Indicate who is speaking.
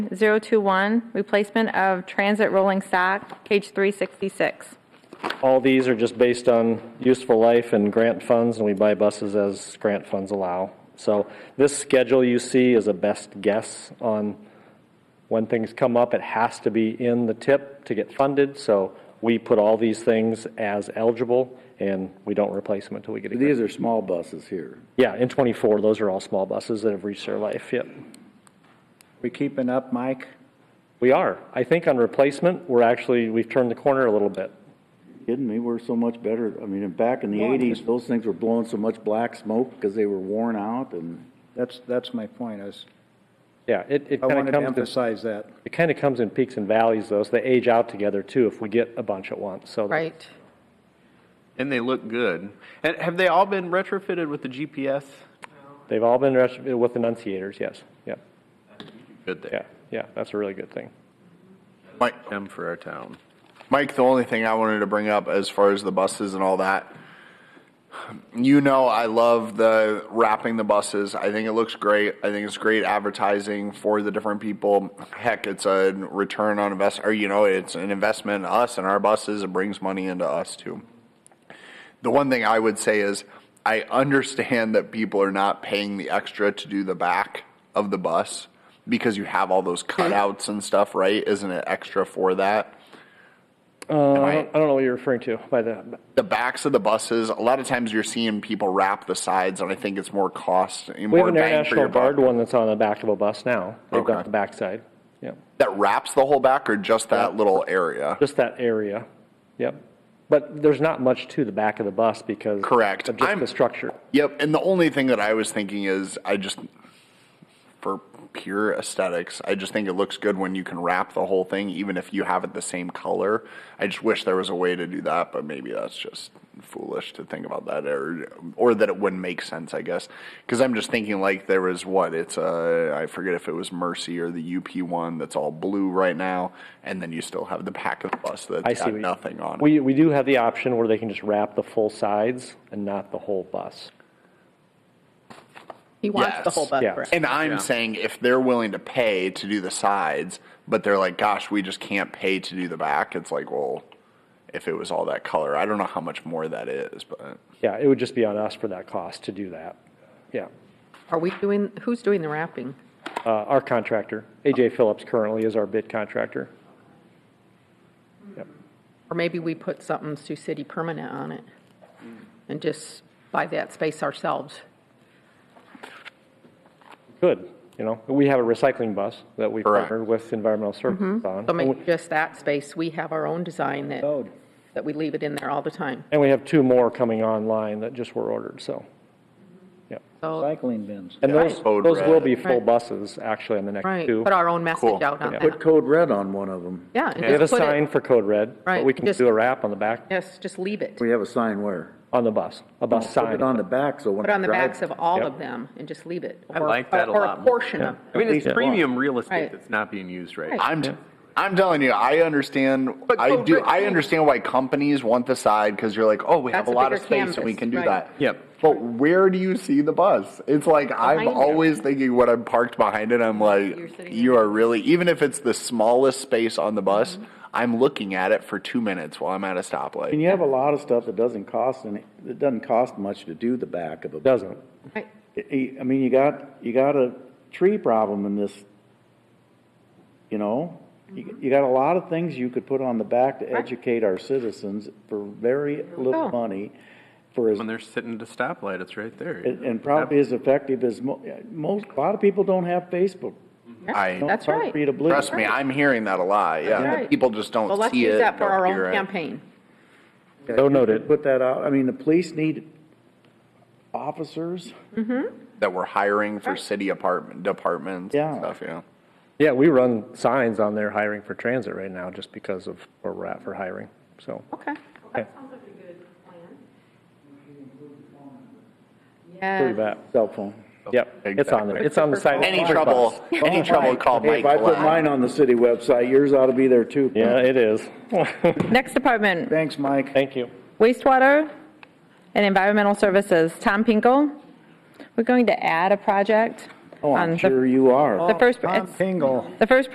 Speaker 1: 021, replacement of transit rolling stock, page 366.
Speaker 2: All these are just based on useful life and grant funds, and we buy buses as grant funds allow. So this schedule you see is a best guess on when things come up. It has to be in the tip to get funded, so we put all these things as eligible, and we don't replace them until we get a grant.
Speaker 3: These are small buses here.
Speaker 2: Yeah, in '24, those are all small buses that have reached their life, yep.
Speaker 3: We keeping up, Mike?
Speaker 2: We are. I think on replacement, we're actually, we've turned the corner a little bit.
Speaker 3: Kidding me, we're so much better. I mean, back in the eighties, those things were blowing so much black smoke because they were worn out and.
Speaker 4: That's, that's my point, is
Speaker 2: Yeah, it, it
Speaker 4: I
Speaker 2: kind
Speaker 4: wanted
Speaker 2: of
Speaker 4: to
Speaker 2: comes, in-
Speaker 4: emphasize that.
Speaker 2: it kind of comes in peaks and valleys, though, so they age out together, too, if we get a bunch at once, so.
Speaker 5: Right.
Speaker 6: And they look good. And have they all been retrofitted with the GPS?
Speaker 2: They've all been res- with enunciators, yes, yep,
Speaker 6: Good there.
Speaker 2: yeah, yeah, that's a really good thing.
Speaker 7: Mike,
Speaker 6: Them for our town.
Speaker 7: Mike, the only thing I wanted to bring up as far as the buses and all that, you know, I love the wrapping the buses. I think it looks great. I think it's great advertising for the different people. Heck, it's a return on invest, or you know, it's an investment in us and our buses. It brings money into us too. The one thing I would say is I understand that people are not paying the extra to do the back of the bus because you have all those cutouts and stuff, right? Isn't it extra for that?
Speaker 2: Uh, I
Speaker 7: I-
Speaker 2: don't I don't know what you're referring to by the,
Speaker 7: the backs of the buses, a lot of times you're seeing people wrap the sides, and I think it's more cost.
Speaker 2: we
Speaker 7: more
Speaker 2: have an
Speaker 7: bang for
Speaker 2: International
Speaker 7: your buck.
Speaker 2: Guard one that's on the back of a bus now. They've got
Speaker 7: Okay.
Speaker 2: the backside, yep,
Speaker 7: That wraps the whole back or just that little area?
Speaker 2: just that area, yep. But there's not much to the back of the bus because.
Speaker 7: Correct.
Speaker 2: of Just
Speaker 7: I'm-
Speaker 2: the structure.
Speaker 7: Yep. And the only thing that I was thinking is I just, for pure aesthetics, I just think it looks good when you can wrap the whole thing, even if you have it the same color. I just wish there was a way to do that, but maybe that's just foolish to think about that or, or that it wouldn't make sense, I guess. Because I'm just thinking like there was what? It's uh, I forget if it was Mercy or the UP one that's all blue right now. And then you still have the back of the bus that's
Speaker 2: I see
Speaker 7: got
Speaker 2: what you-
Speaker 7: nothing on it.
Speaker 2: We, we do have the option where they can just wrap the full sides and not the whole bus.
Speaker 5: He wants the
Speaker 7: Yes.
Speaker 5: whole bus
Speaker 2: Yeah.
Speaker 5: wrapped.
Speaker 7: And I'm saying if they're willing to pay to do the sides, but they're like, gosh, we just can't pay to do the back, it's like, well, if it was all that color, I don't know how much more that is, but
Speaker 2: Yeah, it would just be on us for that cost to do that. Yeah.
Speaker 5: Are we doing, who's doing the wrapping?
Speaker 2: Uh, our contractor, AJ Phillips currently is our bid contractor.
Speaker 5: Or maybe we put something Sioux City permanent on it and just buy that space ourselves.
Speaker 2: Good, you know, we have a recycling bus that we
Speaker 7: Correct.
Speaker 2: partnered with environmental services on.
Speaker 5: So
Speaker 2: and we-
Speaker 5: make just that space, we have our own design that, that we leave it in there all the time.
Speaker 2: And we have two more coming online that just were ordered, so. yeah.
Speaker 5: So,
Speaker 4: Cycling bins.
Speaker 2: And those,
Speaker 7: Code
Speaker 2: those
Speaker 7: red.
Speaker 2: will be full
Speaker 5: Right.
Speaker 2: buses actually on the next
Speaker 5: right,
Speaker 2: two.
Speaker 5: put our own message
Speaker 7: Cool.
Speaker 5: out on
Speaker 3: Put
Speaker 5: that.
Speaker 3: code red on one of them.
Speaker 5: Yeah. and
Speaker 2: We have a
Speaker 5: just put it-
Speaker 2: sign for code red, but
Speaker 5: Right,
Speaker 2: we can
Speaker 5: just-
Speaker 2: do a wrap on the back,
Speaker 5: Yes, just leave it.
Speaker 3: We have a sign where?
Speaker 2: on the bus, a bus
Speaker 3: Put
Speaker 2: sign.
Speaker 3: it on the back, so when.
Speaker 5: Put on the
Speaker 3: it drives-
Speaker 5: backs of all
Speaker 2: Yep.
Speaker 5: of them and just leave it.
Speaker 6: I
Speaker 5: Or-
Speaker 6: like that a
Speaker 5: or-
Speaker 6: lot
Speaker 5: Or
Speaker 6: more.
Speaker 5: a portion of,
Speaker 6: I mean, it's premium real
Speaker 5: Right.
Speaker 6: estate that's not being used right now.
Speaker 7: I'm, I'm telling you, I understand,
Speaker 6: But
Speaker 7: I
Speaker 6: go
Speaker 7: do,
Speaker 6: red,
Speaker 7: I
Speaker 6: too.
Speaker 7: understand why companies want the side, because you're like, oh, we have
Speaker 5: That's
Speaker 7: a
Speaker 5: a
Speaker 7: lot of
Speaker 5: bigger
Speaker 7: space and we
Speaker 5: canvas,
Speaker 7: can do
Speaker 5: right.
Speaker 7: that.
Speaker 6: Yep.
Speaker 7: But where do you see the bus? It's like, I'm
Speaker 5: Behind it.
Speaker 7: always thinking when I'm parked behind it, I'm like,
Speaker 5: You're sitting
Speaker 7: you are really, even if it's the smallest space on the bus,
Speaker 5: Mm-hmm.
Speaker 7: I'm looking at it for two minutes while I'm at a stoplight.
Speaker 3: And you have a lot of stuff that doesn't cost any, it doesn't cost much to do the back of a.
Speaker 2: Doesn't.
Speaker 5: right,
Speaker 3: I I mean, you got, you got a tree problem in this, you know? You you got a lot of things you could put on the back to educate our citizens for very little
Speaker 5: go.
Speaker 3: money, for as,
Speaker 6: When they're sitting at a stoplight, it's right there.
Speaker 3: and and probably as effective as mo- most, a lot of people don't have Facebook.
Speaker 7: I-
Speaker 3: No,
Speaker 5: That's
Speaker 3: hard
Speaker 5: right.
Speaker 3: For you to believe.
Speaker 7: Trust me, I'm hearing that a lot. Yeah,
Speaker 5: That's right.
Speaker 7: people just don't
Speaker 5: Well, let's
Speaker 7: see
Speaker 5: use
Speaker 7: it.
Speaker 5: that for
Speaker 7: don't
Speaker 5: our
Speaker 7: hear
Speaker 5: own
Speaker 7: it.
Speaker 5: campaign.
Speaker 2: So noted.
Speaker 3: Put that out, I mean, the police need officers,
Speaker 7: that we're hiring for city apartment departments.
Speaker 3: Yeah.
Speaker 7: and stuff. Yeah.
Speaker 2: Yeah, we run signs on there hiring for transit right now just because of where we're at for hiring, so.
Speaker 5: Okay.
Speaker 2: Okay.
Speaker 5: Yeah.
Speaker 2: that.
Speaker 3: cell phone.
Speaker 2: Yep, it's on there. It's on the side.
Speaker 7: Any trouble? Any trouble? Call
Speaker 3: Hey,
Speaker 7: Mike.
Speaker 3: if I put
Speaker 7: Black.
Speaker 3: mine on the city website, yours ought to be there too.
Speaker 2: Yeah, it is.
Speaker 1: Next department,
Speaker 3: Thanks, Mike.
Speaker 2: Thank you.
Speaker 1: wastewater and environmental services. Tom Pinkel, we're going to add a project.
Speaker 3: Oh,
Speaker 1: on
Speaker 3: I'm
Speaker 1: the- Oh,
Speaker 3: sure you are.
Speaker 1: The first,
Speaker 3: Oh,
Speaker 4: Tom
Speaker 1: it's-
Speaker 4: Pingle.
Speaker 1: the first